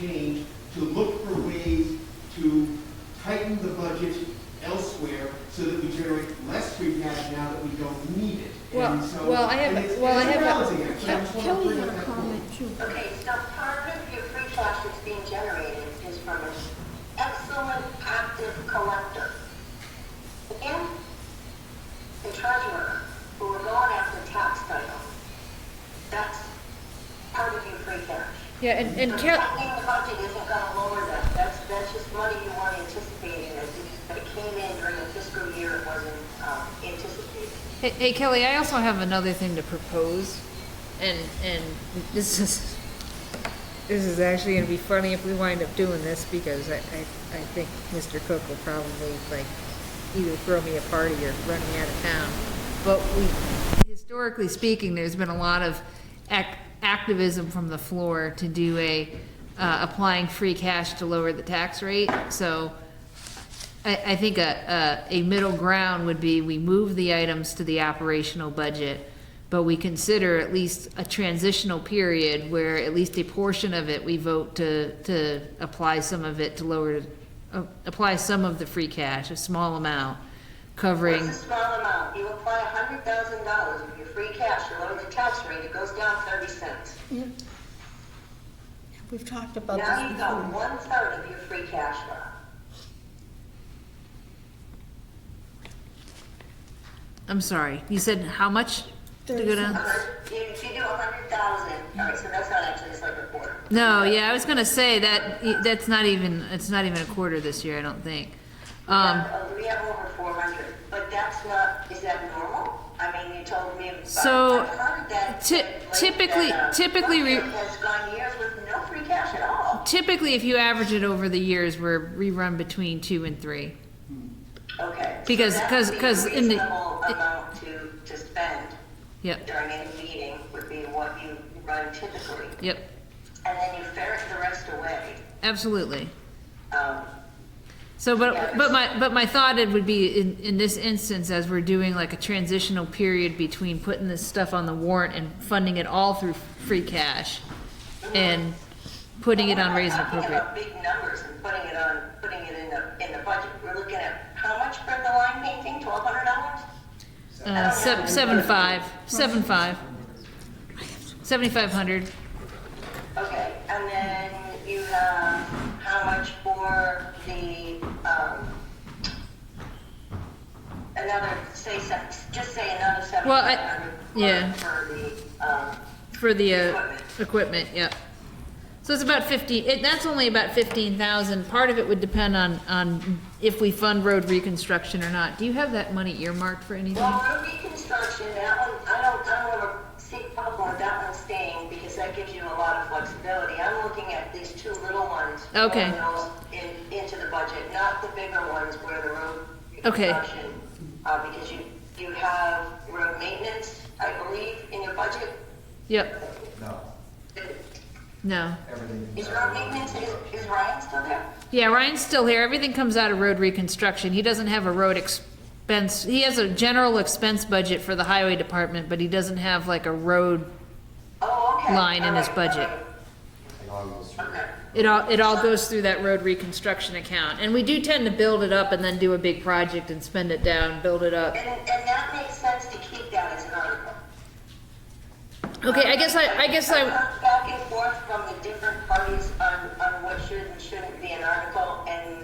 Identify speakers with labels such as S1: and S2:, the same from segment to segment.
S1: change, to look for ways to tighten the budget elsewhere so that we generate less free cash now that we don't need it.
S2: Well-
S1: And so-
S2: well, I have a-
S1: and it's-
S2: well, I
S1: it's a
S2: have a-
S1: balancing act, so I just wanna
S3: Kelly
S1: bring
S3: had
S1: up
S3: a
S1: that
S3: comment
S1: point.
S3: too.
S4: Okay, so part of your free cash that's being generated is from an excellent active collector. And the treasurer, who are going after tax title. That's part of your free cash.
S2: Yeah, and, and
S4: So
S2: Kelly,
S4: Tightening the budget isn't gonna lower that, that's, that's just money you weren't anticipating, It's just that it came in during the fiscal year, it wasn't, um, anticipated.
S2: hey- hey Kelly, I also have another thing to propose, and, and this is, this is actually gonna be funny if we wind up doing this, because I, I, I think Mr. Cook will probably like either throw me a party or run me out of town. But we, historically speaking, there's been a lot of ac- activism from the floor to do a, uh, applying free cash to lower the tax rate, so I, I think a, a, a middle ground would be we move the items to the operational budget, but we consider at least a transitional period where at least a portion of it, we vote to, to apply some of it to lower, uh, apply some of the free cash, a small amount, covering,
S4: It's a small amount, you apply a hundred thousand dollars of your free cash, you lower the tax rate, it goes down thirty cents.
S3: Yeah. We've talked about
S4: Now
S3: this
S4: you've got
S3: before.
S4: one third of your free cash left.
S2: I'm sorry, you said how much to go
S3: Thirty
S2: down?
S4: A hundred- If you do a hundred thousand, all right, so that's not actually, it's like a quarter.
S2: No, yeah, I was gonna say that, that's not even, it's not even a quarter this year, I don't think. Um,
S4: Uh, We have over four hundred, but that's not, is that normal? I mean, you told me. about-
S2: So,
S4: I've heard that-
S2: ty-
S4: like,
S2: typically-
S4: that, uh,
S2: typically we-
S4: Brookfield Has gone years with no free cash at all.
S2: Typically, if you average it over the years, we're rerun between two and three.
S4: Okay. so
S2: Because-
S4: that
S2: 'cause-
S4: would be
S2: 'cause
S4: a
S2: in the-
S4: Reasonable amount to, to spend
S2: Yep,
S4: during a meeting would be what you run typically.
S2: yep,
S4: And then you ferret the rest away.
S2: absolutely.
S4: Um,
S2: So, but, but my, but my thought it would be in, in this instance, as we're doing like a transitional period between putting this stuff on the warrant and funding it all through free cash and putting it on raise and
S4: We're
S2: appropriate.
S4: not talking about big numbers and putting it on, putting it in the, in the budget. We're looking at how much for the line painting, twelve hundred dollars?
S2: Uh, seven, seven five, seven five. Seventy-five hundred.
S4: Okay, and then you have how much for the, um, another, say, se- just say another
S2: Well, I-
S4: seventy-five hundred.
S2: yeah.
S4: For the, um,
S2: For the uh, equipment, yep. So it's about fifty, it, that's only about fifteen thousand. Part of it would depend on, on if we fund road reconstruction or not. Do you have that money earmarked for anything?
S4: Well, road reconstruction, that one, I don't, I don't have a big problem with that one staying because that gives you a lot of flexibility. I'm looking at these two little ones. throwing
S2: Okay.
S4: those In, into the budget, not the bigger ones where the road
S2: Okay.
S4: reconstruction. Uh, because you, you have road maintenance, I believe, in your budget.
S2: Yep,
S5: No,
S2: no.
S5: everything.
S4: Is road maintenance, is, is Ryan still there?
S2: Yeah, Ryan's still here. Everything comes out of road reconstruction. He doesn't have a road expense, he has a general expense budget for the highway department, but he doesn't have like a road,
S4: Oh, okay.
S2: Line in
S4: All
S2: his
S4: right,
S2: budget.
S5: It all goes
S4: all
S5: through.
S4: right, Okay.
S2: it all, it all goes through that road reconstruction account. And we do tend to build it up and then do a big project and spend it down, build it up.
S4: And, and that makes sense to keep that as an article.
S2: Okay, I guess I, I guess I,
S4: I've heard Back and forth from the different parties on, on what should and shouldn't be an article, and,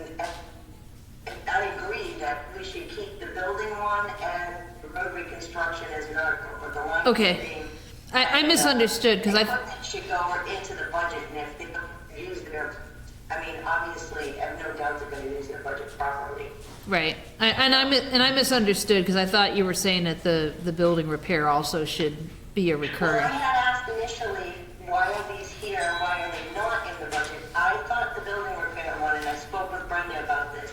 S4: and I agree that we should keep the building one and the road reconstruction as an article, but the line.
S2: Okay.
S4: painting-
S2: I, I misunderstood, because I,
S4: Equipment Should go into the budget, and if they don't use their, I mean, obviously, I have no doubt they're gonna use their budget properly.
S2: right, I- and I, mi- and I misunderstood, because I thought you were saying that the, the building repair also should be a
S4: When I
S2: recurring.
S4: had asked initially, why are these here and why are they not in the budget? I thought the building repair one, and I spoke with Brenda about this,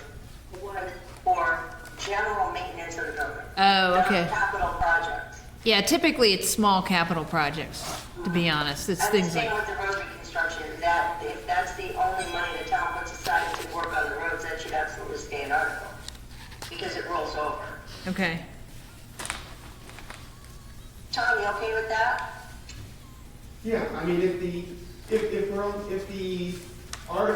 S4: was for general maintenance of the building.
S2: Oh, okay.
S4: Not Capital projects.
S2: Yeah, typically it's small capital projects, to be honest, it's
S4: I'm
S2: things like,
S4: saying with the road reconstruction, that if that's the only money the town puts aside to work on the roads, that should absolutely stay an article, because it rolls over.
S2: okay.
S4: Tom, you okay with that?
S1: Yeah, I mean, if the, if, if we're, on- if the Article